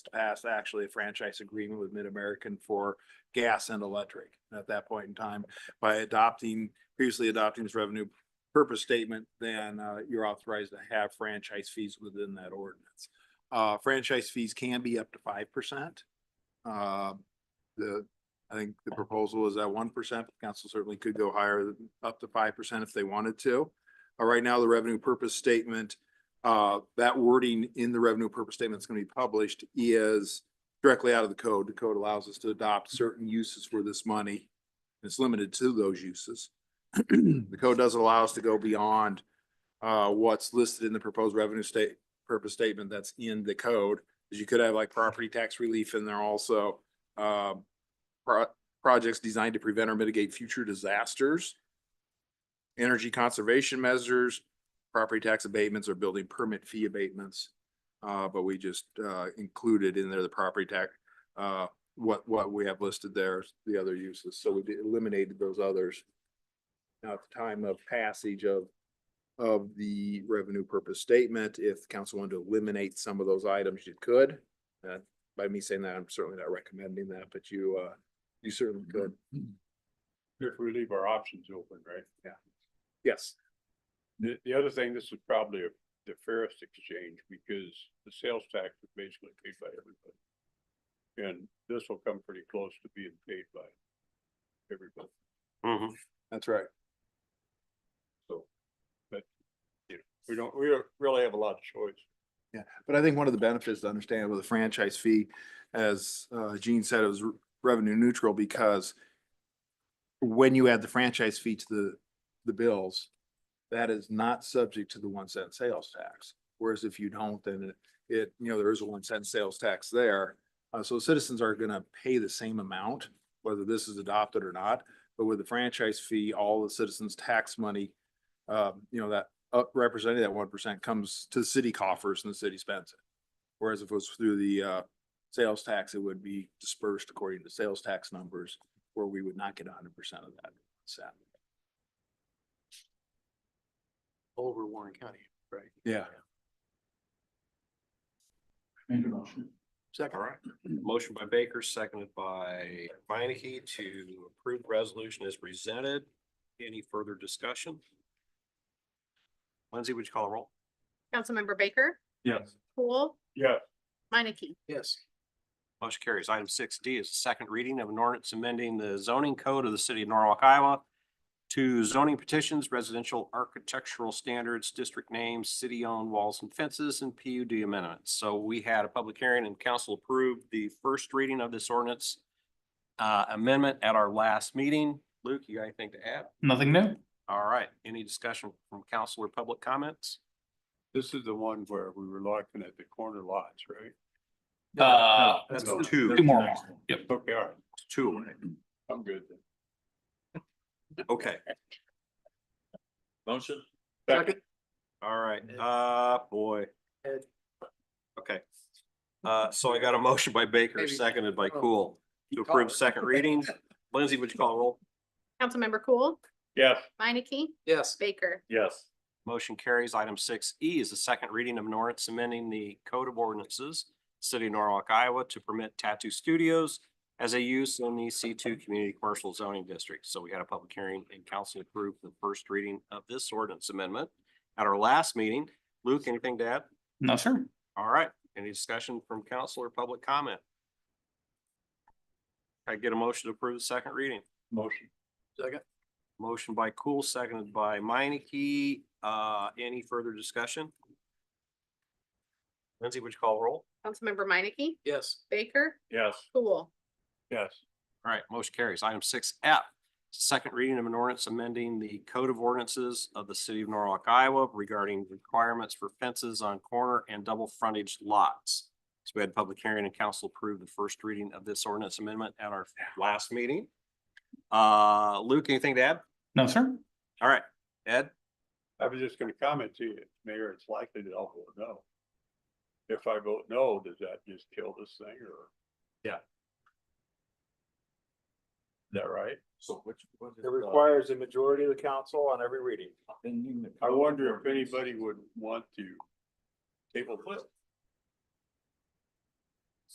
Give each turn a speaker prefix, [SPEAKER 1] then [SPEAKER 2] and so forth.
[SPEAKER 1] passed actually a franchise agreement with Mid-American for gas and electric. And At that point in time, by adopting, previously adopting this revenue purpose statement, then uh, you're authorized to have franchise fees within that ordinance. Uh, franchise fees can be up to five percent. Uh, The, I think the proposal is at one percent. Council certainly could go higher, than- up to five percent if they wanted to. Uh, Right now, the revenue purpose statement, uh, that wording in the revenue purpose statement that's going to be published is directly out of the code. The code allows us to adopt certain uses for this money. It's limited to those uses. The code doesn't allow us to go beyond uh, what's listed in the proposed revenue state, purpose statement that's in the code. Because you could have like property tax relief in there also. um, pro- Projects designed to prevent or mitigate future disasters. Energy conservation measures, property tax abatements or building permit fee abatements. Uh, but we just, uh, included in there the property tax, uh, what, what we have listed there, the other uses. So we eliminated those others. Now, at the time of passage of, of the revenue purpose statement, if the council wanted to eliminate some of those items, you could. Uh, by me saying that, I'm certainly not recommending that, but you, uh, you certainly could.
[SPEAKER 2] If we leave our options open, right?
[SPEAKER 1] Yes,
[SPEAKER 2] The, the other thing, this is probably a- the fairest exchange because the sales tax is basically paid by everybody. And this will come pretty close to being paid by everybody,
[SPEAKER 1] that's right.
[SPEAKER 2] so. But, you know, we don't, we don't really have a lot of choice.
[SPEAKER 1] Yeah, but I think one of the benefits to understand with a franchise fee, as uh, Gene said, it was re- revenue neutral because when you add the franchise fee to the, the bills, that is not subject to the one cent sales tax. Whereas if you don't, then it, it, you know, there is a one cent sales tax there. Uh, so citizens are gonna pay the same amount, whether this is adopted or not. But with the franchise fee, all the citizens' tax money, uh, you know, that up representing that one percent comes to the city coffers and the city spends it. Whereas if it was through the uh sales tax, it would be dispersed according to sales tax numbers where we would not get hundred percent of that. So,
[SPEAKER 3] over Warren County, right?
[SPEAKER 1] yeah,
[SPEAKER 3] Make a motion.
[SPEAKER 4] All
[SPEAKER 3] Second,
[SPEAKER 4] right, motion by Baker, seconded by Minneke to approve the resolution as presented. Any further discussion? Lindsay, would you call a roll?
[SPEAKER 5] Councilmember Baker,
[SPEAKER 2] Yes.
[SPEAKER 5] Poole,
[SPEAKER 2] Yeah,
[SPEAKER 5] Minneke,
[SPEAKER 3] yes,
[SPEAKER 4] Motion carries. Item six D is the second reading of an ordinance amending the zoning code of the city of Norwalk, Iowa to zoning petitions, residential architectural standards, district names, city-owned walls and fences, and PUD amendments. So we had a public hearing and council approved the first reading of this ordinance uh, amendment at our last meeting. Luke, you got anything to add?
[SPEAKER 6] Nothing new.
[SPEAKER 4] All right, any discussion from council or public comments?
[SPEAKER 2] this is the one where we were looking at the corner lots, right?
[SPEAKER 6] Uh,
[SPEAKER 4] That's
[SPEAKER 2] No.
[SPEAKER 4] two,
[SPEAKER 6] two more. Yep.
[SPEAKER 2] Okay, all right,
[SPEAKER 4] two.
[SPEAKER 2] I'm good then.
[SPEAKER 4] Okay,
[SPEAKER 7] Motion?
[SPEAKER 2] Second,
[SPEAKER 4] all right. Uh, boy.
[SPEAKER 3] Ed.
[SPEAKER 4] Okay. Uh, so I got a motion by Baker,
[SPEAKER 3] Maybe.
[SPEAKER 4] seconded by
[SPEAKER 3] Oh.
[SPEAKER 4] Cool to approve second reading. Lindsay, would you call a roll?
[SPEAKER 5] Councilmember Cool,
[SPEAKER 2] yes.
[SPEAKER 5] Minneke,
[SPEAKER 3] yes,
[SPEAKER 5] Baker,
[SPEAKER 2] Yes.
[SPEAKER 4] Motion carries. Item six E is the second reading of an ordinance amending the Code of Ordinances, City of Norwalk, Iowa, to permit tattoo studios as a use in the C two Community Commercial Zoning District. So we had a public hearing and council approved the first reading of this ordinance amendment at our last meeting. Luke, anything to add?
[SPEAKER 6] No, sir.
[SPEAKER 4] All right, any discussion from council or public comment? I get a motion to approve the second reading.
[SPEAKER 2] Motion,
[SPEAKER 3] second,
[SPEAKER 4] Motion by Cool, seconded by Minneke. Uh, any further discussion? Lindsay, would you call a roll?
[SPEAKER 5] Councilmember Minneke,
[SPEAKER 3] yes,
[SPEAKER 5] Baker,
[SPEAKER 2] yes,
[SPEAKER 5] Cool,
[SPEAKER 2] yes.
[SPEAKER 4] All right, motion carries. Item six F, second reading of an ordinance amending the code of ordinances of the city of Norwalk, Iowa regarding requirements for fences on corner and double frontage lots. So we had public hearing and council approved the first reading of this ordinance amendment at our last meeting. Uh, Luke, anything to add?
[SPEAKER 6] No, sir.
[SPEAKER 4] All right, Ed?
[SPEAKER 2] I was just gonna comment to you, Mayor, it's likely that I'll vote no. If I vote no, does that just kill this thing or?
[SPEAKER 7] Yeah.
[SPEAKER 2] Is that right?
[SPEAKER 7] So which? what is
[SPEAKER 8] It
[SPEAKER 7] the-
[SPEAKER 8] requires a majority of the council on every reading.
[SPEAKER 2] I wonder if anybody would want to table this.